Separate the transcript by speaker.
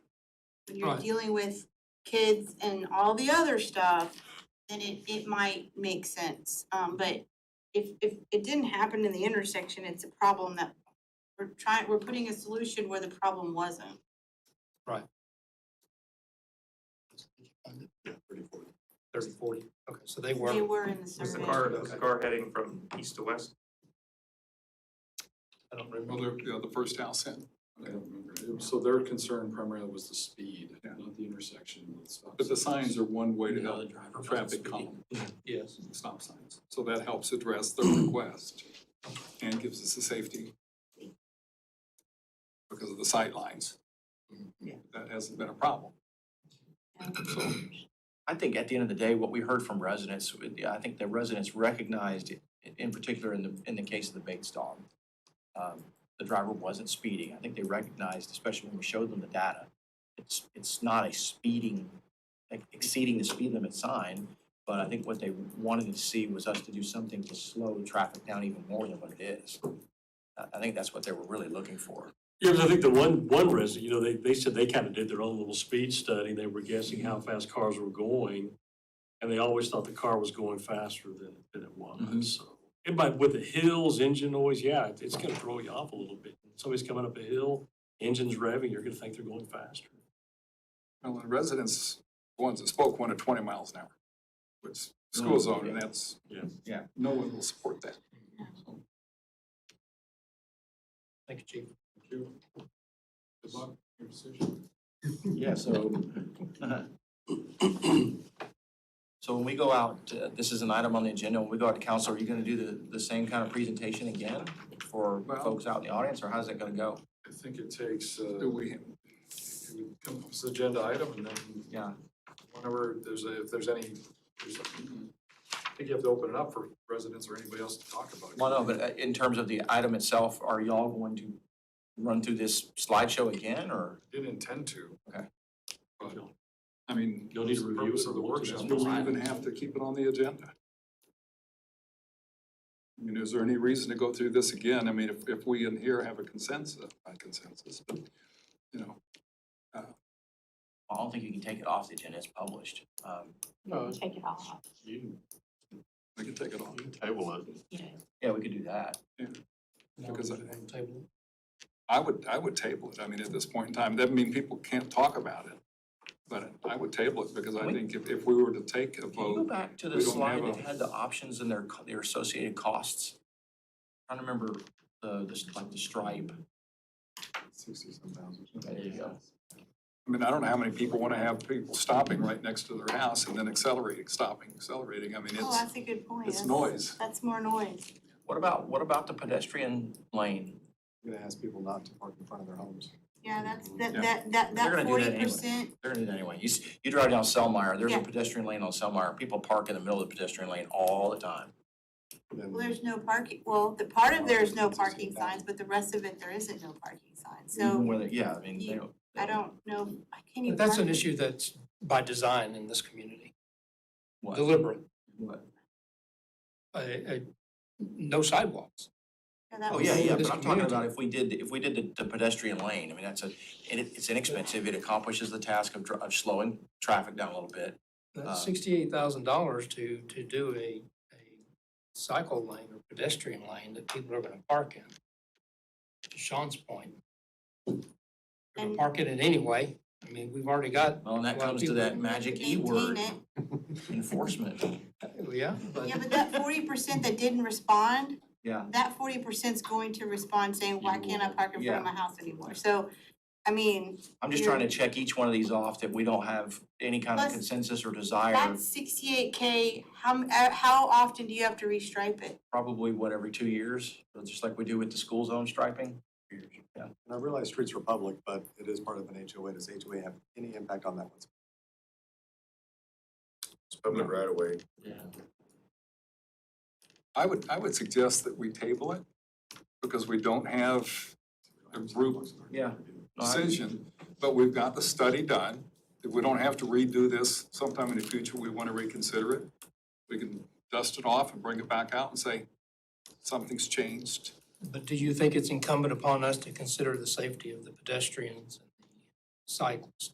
Speaker 1: when you're
Speaker 2: Right.
Speaker 1: dealing with kids and all the other stuff, then it, it might make sense. Um, but if, if it didn't happen in the intersection, it's a problem that we're trying, we're putting a solution where the problem wasn't.
Speaker 3: Yeah, pretty important.
Speaker 2: thirty, forty? Okay, so they
Speaker 1: They
Speaker 2: were,
Speaker 1: were in the
Speaker 4: Was the
Speaker 1: survey.
Speaker 4: car, was the car heading from east to west?
Speaker 2: I don't
Speaker 5: Well,
Speaker 2: remember.
Speaker 5: they're, yeah, the first house in. I don't remember.
Speaker 3: Yeah, So their concern primarily was the speed, not the intersection with stop
Speaker 5: But the
Speaker 3: signs.
Speaker 5: signs are one way to
Speaker 2: Yeah,
Speaker 5: help
Speaker 2: the driver wasn't
Speaker 5: traffic
Speaker 2: speeding.
Speaker 5: calm,
Speaker 2: Yes,
Speaker 5: stop signs. So that helps address the request and gives us the safety because of the sight lines.
Speaker 6: Yeah.
Speaker 5: That hasn't been a problem. So
Speaker 6: I think at the end of the day, what we heard from residents, I think the residents recognized, in particular in the, in the case of the Bates dog, um, the driver wasn't speeding. I think they recognized, especially when we showed them the data, it's, it's not a speeding, like, exceeding the speed limit sign, but I think what they wanted to see was us to do something to slow traffic down even more than what it is. I, I think that's what they were really looking for.
Speaker 7: Yeah, 'cause I think the one, one resident, you know, they, they said they kind of did their own little speed study. They were guessing how fast cars were going. And they always thought the car was going faster than, than it
Speaker 5: Mhm.
Speaker 7: was, so. And but with the hills, engine noise, yeah, it- it's gonna throw you off a little bit. Somebody's coming up a hill, engine's revving, you're gonna think they're going faster.
Speaker 5: Well, the residents, the ones that spoke, wanted twenty miles an hour, which school zone, and that's,
Speaker 7: Mm, Yeah.
Speaker 6: Yeah.
Speaker 5: no one will support that.
Speaker 2: thank you, chief.
Speaker 5: Good luck, your decision.
Speaker 6: Yeah, so. So when we go out, uh, this is an item on the agenda, when we go out to council, are you gonna do the, the same kind of presentation again for
Speaker 5: Well-
Speaker 6: folks out in the audience, or how's that gonna go?
Speaker 3: I think it takes, uh,
Speaker 5: Do we,
Speaker 3: it would come up as an agenda item and then
Speaker 6: Yeah,
Speaker 3: whenever there's a, if there's any, there's, I think you have to open it up for residents or anybody else to talk about it.
Speaker 6: well, no, but uh, in terms of the item itself, are y'all going to run through this slideshow again, or?
Speaker 3: Didn't intend to.
Speaker 5: I mean,
Speaker 7: You'll need to
Speaker 3: What's the
Speaker 7: review
Speaker 3: purpose
Speaker 7: it or
Speaker 3: of the
Speaker 7: once it.
Speaker 3: workshop?
Speaker 5: do we even have to keep it on the agenda? I mean, is there any reason to go through this again? I mean, if, if we in here have a consensus, not consensus, but, you know,
Speaker 6: I don't think you can take it off the agenda, it's published. Um,
Speaker 8: Take it off,
Speaker 5: we can take it off.
Speaker 3: Table it.
Speaker 8: yeah.
Speaker 6: Yeah, we could do that.
Speaker 5: Because I-
Speaker 2: Table.
Speaker 5: I would, I would table it. I mean, at this point in time, that mean people can't talk about it. But I would table it because I think if, if we were to take a
Speaker 6: Can you go
Speaker 5: vote,
Speaker 6: back to the
Speaker 5: we don't
Speaker 6: slide
Speaker 5: have
Speaker 6: that
Speaker 5: a-
Speaker 6: had the options and their, co- their associated costs? I don't remember the, the, s- like the stripe.
Speaker 3: Sixty-seven thousand.
Speaker 6: There you go.
Speaker 5: I mean, I don't know how many people want to have people stopping right next to their house and then accelerating, stopping, accelerating. I mean,
Speaker 1: Oh,
Speaker 5: it's,
Speaker 1: that's a good point.
Speaker 5: it's
Speaker 1: That's-
Speaker 5: noise.
Speaker 1: That's more noise.
Speaker 6: What about, what about the pedestrian lane?
Speaker 3: Gonna ask people not to park in front of their homes.
Speaker 1: Yeah, that's, that,
Speaker 5: Yeah.
Speaker 1: that, that,
Speaker 6: They're
Speaker 1: that
Speaker 6: gonna do that
Speaker 1: forty
Speaker 6: anyway.
Speaker 1: percent,
Speaker 6: They're gonna do that anyway. You, s- you drive down Selmeyer, there's a
Speaker 1: Yeah.
Speaker 6: pedestrian lane on Selmeyer. People park in the middle of the pedestrian lane all the time.
Speaker 3: Then-
Speaker 1: well, there's no parking, well, the part of there is no parking signs, but the rest of it, there isn't no parking signs,
Speaker 6: Even
Speaker 1: so
Speaker 6: whether, yeah, I mean, they
Speaker 1: you-
Speaker 6: don't.
Speaker 1: I don't know, I can't even.
Speaker 2: But that's
Speaker 1: park
Speaker 2: an
Speaker 1: in-
Speaker 2: issue that's by design in this community,
Speaker 6: What?
Speaker 2: deliberate,
Speaker 6: What?
Speaker 2: a, a, no sidewalks.
Speaker 1: Yeah, that
Speaker 6: Oh,
Speaker 1: was-
Speaker 6: yeah, yeah,
Speaker 2: This
Speaker 6: but I'm talking
Speaker 2: community.
Speaker 6: about if we did, if we did the- the pedestrian lane, I mean, that's a, and it, it's inexpensive. It accomplishes the task of, dr- of slowing traffic down a little bit. Uh,
Speaker 2: That's sixty-eight thousand dollars to, to do a, a cycle lane or pedestrian lane that people are gonna park in. To Sean's point. They're gonna
Speaker 1: And-
Speaker 2: park in it anyway. I mean, we've already got,
Speaker 6: Well, and that
Speaker 2: Well,
Speaker 6: comes to
Speaker 2: people-
Speaker 6: that magic E
Speaker 1: Maintain
Speaker 6: word,
Speaker 1: it.
Speaker 6: enforcement.
Speaker 2: uh, yeah, but
Speaker 1: Yeah, but that forty percent that didn't respond,
Speaker 6: Yeah.
Speaker 1: that forty percent's going to respond saying, why can't I park in front of my house anymore? So, I mean,
Speaker 6: I'm just trying to check each one of these off that we don't have any kind of
Speaker 1: Plus,
Speaker 6: consensus or desire,
Speaker 1: that's sixty-eight K, how, m- uh, how often do you have to restripe it?
Speaker 6: probably what, every two years? Just like we do with the school zone striping? Yeah.
Speaker 9: And I realize streets are public, but it is part of an HOA. Does HOA have any impact on that one?
Speaker 3: It's public right away.
Speaker 5: I would, I would suggest that we table it because we don't have a group
Speaker 6: Yeah. No, I-
Speaker 5: decision, but we've got the study done. If we don't have to redo this sometime in the future, we want to reconsider it. We can dust it off and bring it back out and say, something's changed.
Speaker 2: But do you think it's incumbent upon us to consider the safety of the pedestrians and the cyclists